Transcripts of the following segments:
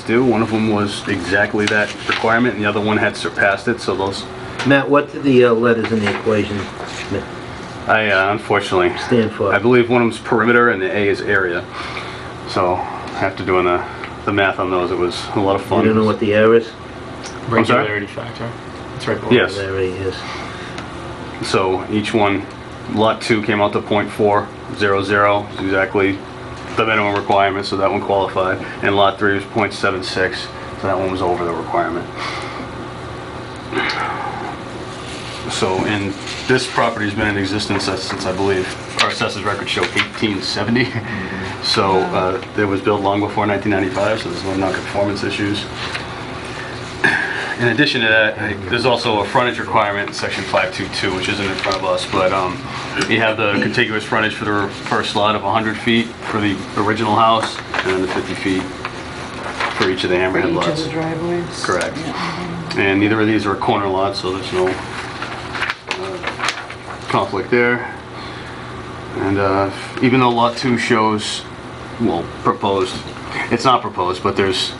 do. One of them was exactly that requirement, and the other one had surpassed it, so those, Matt, what do the uh, letters in the equation I uh, unfortunately, stand for? I believe one of them's perimeter and the A is area. So after doing the, uh, the math on those, it was a lot of You fun. don't know what the error is? I'm sorry? Regularity factor. That's right. below. Yes. There he is. So each one, lot two came out to point four zero zero, exactly the minimum requirement, so that one qualified. And lot three was point seven six, so that one was over the requirement. So, and this property's been in existence since, since, I believe, our assessors records show eighteen seventy. Mm-hmm. So, uh, it was built long before nineteen ninety-five, so there's no non-conformance issues. In addition to that, I- there's also a frontage requirement in section 522, which isn't in front of us, but um, you have the contiguous frontage for the first lot of 100 feet for the original house, and then the 50 feet for each of the For hammerhead each of lots. the driveways? Correct. And neither of these are corner lots, so there's no uh, conflict there. And uh, even though Lot 2 shows, well, proposed, it's not proposed, but there's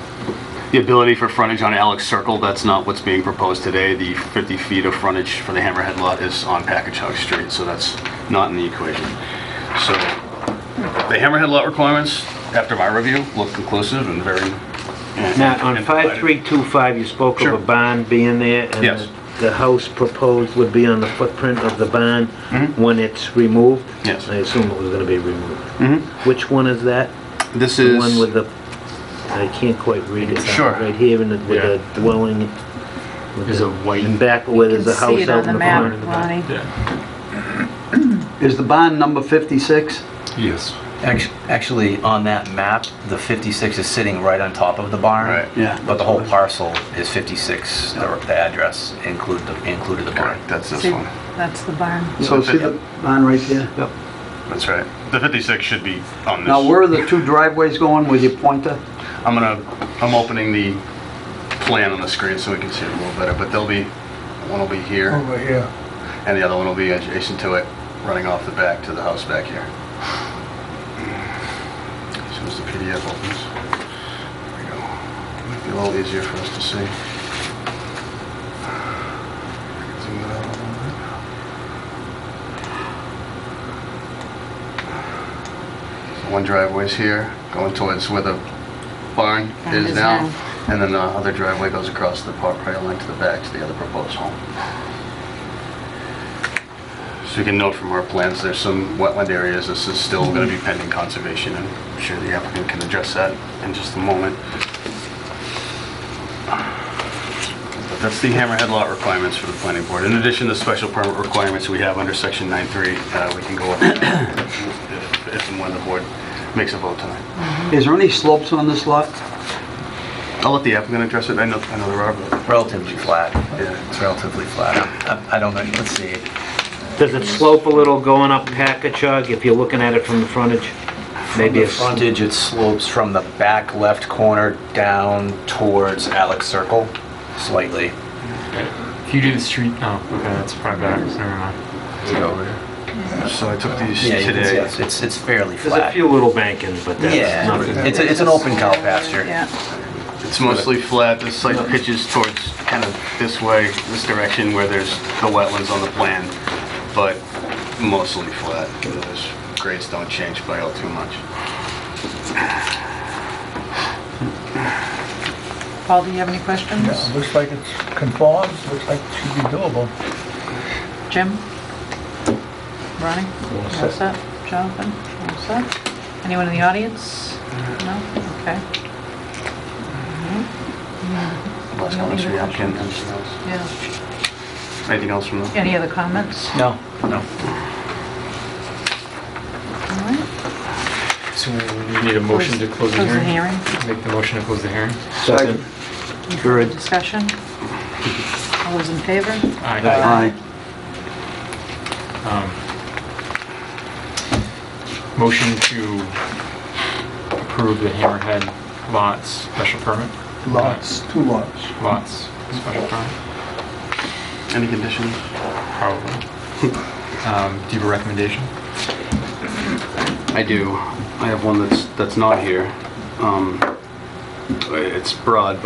the ability for frontage on Alex Circle, that's not what's being proposed today. The 50 feet of frontage for the Hammerhead lot is on Packagug Street, so that's not in the equation. So the Hammerhead lot requirements, after my review, look conclusive and very... Matt, on and provided. 5325, you spoke Sure. of a barn being there? Yes. And the house proposed would be on the footprint of the barn when it's removed? Mm-hmm. Yes. Mm-hmm. I assume it was going to be removed. Which one is that? This The is... one with the, I can't quite read it. Sure. Right here in the, with the dwelling. with There's the- a white- And back where You there's can a house see it out on the in the map, corner. Lonnie. Yeah. Is the bond number 56? Yes. Act- Actually, on that map, the 56 is sitting right on top of the barn. Right. Yeah. But the whole parcel is 56, the the address included, the- included the barn. Correct, that's this See, one. That's the barn. So see the bond right there? That's right. The 56 should be on this. Now, where are the two driveways going with your pointer? I'm gonna, I'm opening the plan on the screen so we can see it a little better, but they'll be, one will be here. Oh. Over here. And the other one will be adjacent to it, running off the back to the house back here. As soon as the PDF opens. There we go. Might be a little easier for us to see. Zoom it out a little bit. One driveway's here, going towards where the barn Barn is is now. now. And then the other driveway goes across the property line to the back to the other proposed home. So you can note from our plans, there's some wetland areas. This is still going to be pending conservation, and I'm sure the applicant can address that in just a moment. But that's the hammerhead lot requirements for the planning board. In addition to special permit requirements we have under section 9.3, uh, we can go over that if- if and when the board makes a vote tonight. Is there any slopes on this lot? I'll let the applicant address it. I know, I know there are, but Relatively flat. Yeah. It's relatively flat. I I don't know, let's see. Does it slope a little going up Packagug if you're looking at it from the frontage? Maybe The it's frontage, it slopes from the back left corner down towards Alex Circle slightly. If you do the street, oh, okay, that's probably better. Never mind. so I took these Yeah, you can see today. it's- it's, it's fairly There's a flat. few little bankings, but that's Yeah, nothing. it's, a- it's an open cow pasture. Yeah. It's mostly flat, the site pitches towards kind of this way, this direction where there's the wetlands on the plan, but mostly flat. Those grades don't change by all too much. Paul, do you have any questions? Yeah, looks like it conforms, looks like it should be doable. Jim? Ronnie? What's up? Jonathan? What's up? Anyone in the audience? No? Okay. Last comments from the applicant, anything else? Yeah. Anything else from the, Any other comments? All No, no. right. So we need a motion to close the Close the hearing. hearing. Make the motion to close the hearing. Second. Third. Discussion? All those in favor? Aye. Aye. Um, Motion to approve the Hammerhead lots special permit? Lots, two lots. Lots special permit, any conditions? probably. Um, Do you have a recommendation? I do. I have one that's, that's not here. Um, It's broad,